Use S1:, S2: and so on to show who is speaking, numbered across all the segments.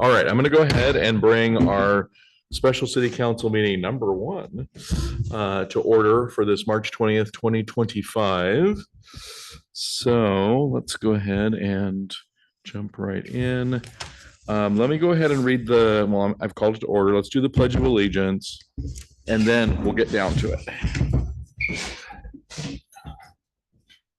S1: All right, I'm gonna go ahead and bring our special city council meeting number one uh, to order for this March twentieth, twenty twenty-five. So let's go ahead and jump right in. Um, Let me go ahead and read the, well, I'm- I've called it to order. Let's do the Pledge of Allegiance and then we'll get down to it.
S2: I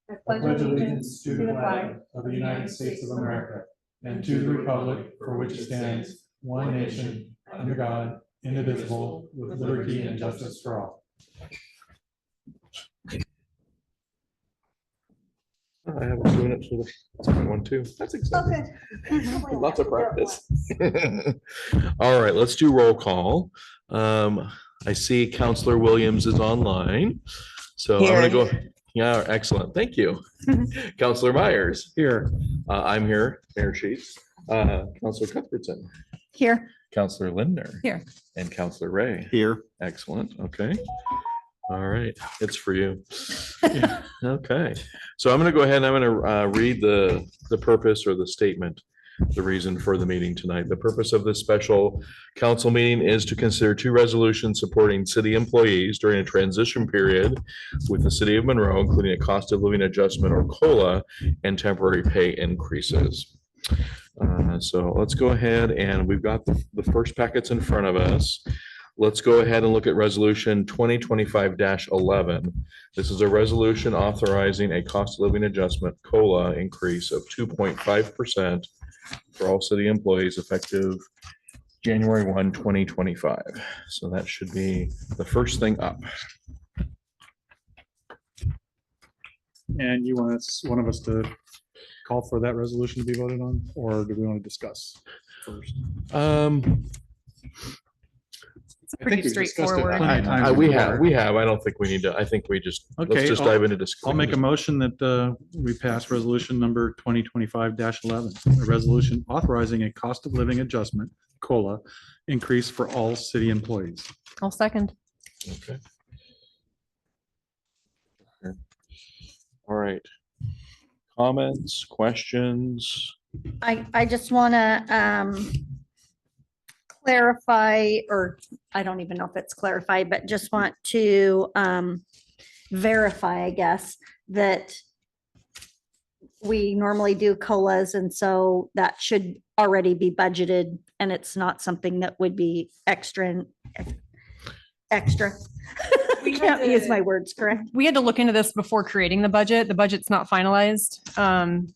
S3: I pledge allegiance to the flag of the United States of America and to the republic for which it stands, one nation, under God, indivisible, with liberty and justice for all.
S1: I have a doing it for the, that's my one too. That's exciting. Lots of practice. All right, let's do roll call. Um, I see Counselor Williams is online. So I'm gonna go, yeah, excellent. Thank you. Counselor Myers. Here. Uh, I'm here, Mayor Sheets. Uh, Counselor Cuthbertson,
S4: Here.
S1: Counselor Lindner.
S4: Here.
S1: And Counselor Ray.
S5: Here.
S1: Excellent. Okay. All right. It's for you. Okay. So I'm going to go ahead and I'm going to read the, the purpose or the statement, the reason for the meeting tonight. The purpose of this special council meeting is to consider two resolutions supporting city employees during a transition period with the city of Monroe, including a cost of living adjustment or COLA and temporary pay increases. Uh, So let's go ahead and we've got the the first packets in front of us let's go ahead and look at resolution twenty twenty-five eleven. This is a resolution authorizing a cost of living adjustment COLA increase of two point five percent for all city employees effective January 1, 2025. So that should be the first thing up.
S3: And you want us, one of us to call for that resolution to be voted on, or do we want to discuss?
S1: Um,
S4: It's pretty straightforward.
S1: I- we have, we have, I don't think we need to, I think we just, let's
S5: Okay,
S1: just
S5: I'll-
S1: dive into this.
S5: I'll make a motion that uh, we pass resolution number twenty twenty-five eleven, a resolution authorizing a cost of living adjustment, COLA, increase for all city employees.
S4: I'll second.
S1: Okay. All right. Comments, questions?
S6: I, I just want to, um, clarify, or I don't even know if it's clarified, but just want to, um, verify, I guess, that we normally do colas, and so that should already be budgeted, and it's not something that would be extra, and- extra.
S2: We had
S6: Can't use
S2: to-
S6: my words correct.
S4: We had to look into this before creating the budget. The budget's not finalized. Um,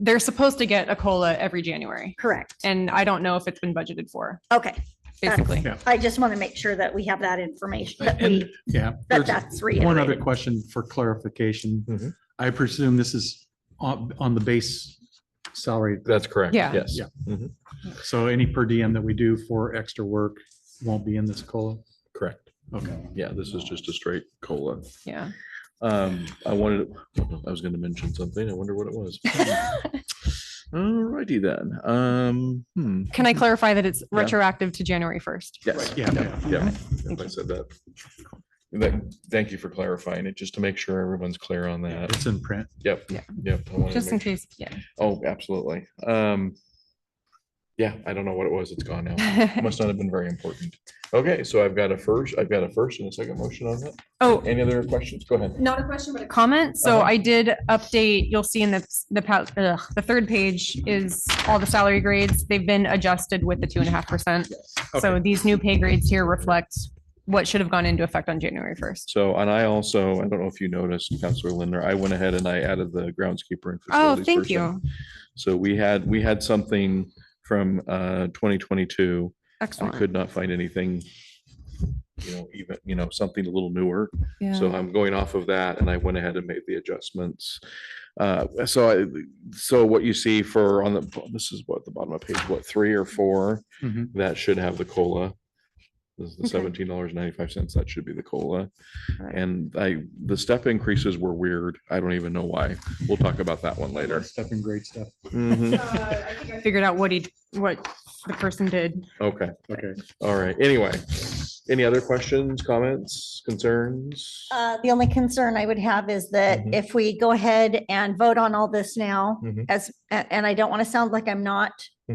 S4: they're supposed to get a COLA every January,
S6: Correct.
S4: and I don't know if it's been budgeted for,
S6: Okay.
S4: basically.
S6: I just want to make sure that we have that information, that
S5: And,
S6: we,
S5: yeah.
S6: that
S5: there's
S6: that's
S5: One
S6: reiterated.
S5: other question for
S1: Mhm.
S5: clarification. I presume this is on, on the base salary.
S1: That's correct.
S4: Yeah.
S1: Yes.
S5: Yeah. So any per diem that we do for extra work won't be in this COLA?
S1: Correct.
S5: Okay.
S1: Yeah, this is just a straight cola.
S4: Yeah.
S1: Um, I wanted, I was gonna mention something. I wonder what it was. Alrighty then. Um, hmm,
S4: Can I clarify that it's retroactive to January 1st?
S1: yes,
S5: Yeah, yeah.
S1: yeah, if I said that. That- Thank you for clarifying it, just to make sure everyone's clear on that.
S5: It's in print.
S1: Yep,
S4: Yeah.
S1: yep. I wanted to
S4: Just
S1: make
S4: in case, yeah.
S1: Oh, absolutely. Um, yeah, I don't know what it was. It's gone now. Must not have been very important. Okay, so I've got a first, I've got a first and a second motion on that.
S4: Oh,
S1: Any other questions? Go ahead.
S2: Not a question, but a
S4: comment. So
S1: Uh-huh.
S4: I did update, you'll see in the, the, pou- ugh, the third page is all the salary grades. They've been adjusted with the two and a half percent. So these new pay grades here reflect what should have gone into effect on January first.
S1: So, and I also, I don't know if you noticed, Counselor Linder, I went ahead and I added the groundskeeper. and
S4: Oh,
S1: facilities
S4: thank
S1: person.
S4: you.
S1: So we had, we had something from, uh, twenty twenty-two I
S4: Excellent.
S1: could not find anything, you know, even, you know, something a little newer. So
S4: Yeah.
S1: I'm going off of that and I went ahead and made the adjustments. Uh, So, I- so what you see for on the, this is what, the bottom of page, what, three or four?
S5: Mhm.
S1: That should have the COLA. This is the
S4: Mm-hmm. Okay.
S1: seventeen dollars and ninety-five cents. That should be the COLA.
S4: Alright.
S1: And I, the step increases were weird. I don't even know why. We'll talk about that one later.
S5: Stuff and great stuff.
S1: Mhm.
S2: Uh, I think I
S4: Figured out what he, what the person did.
S1: Okay,
S5: Okay.
S1: all right. Anyway, Any other questions, comments, concerns?
S6: Uh, the only concern I would have is that
S1: Mhm.
S6: if we go ahead and vote on all this now,
S1: Mhm.
S6: as, a- and I don't want to sound like I'm not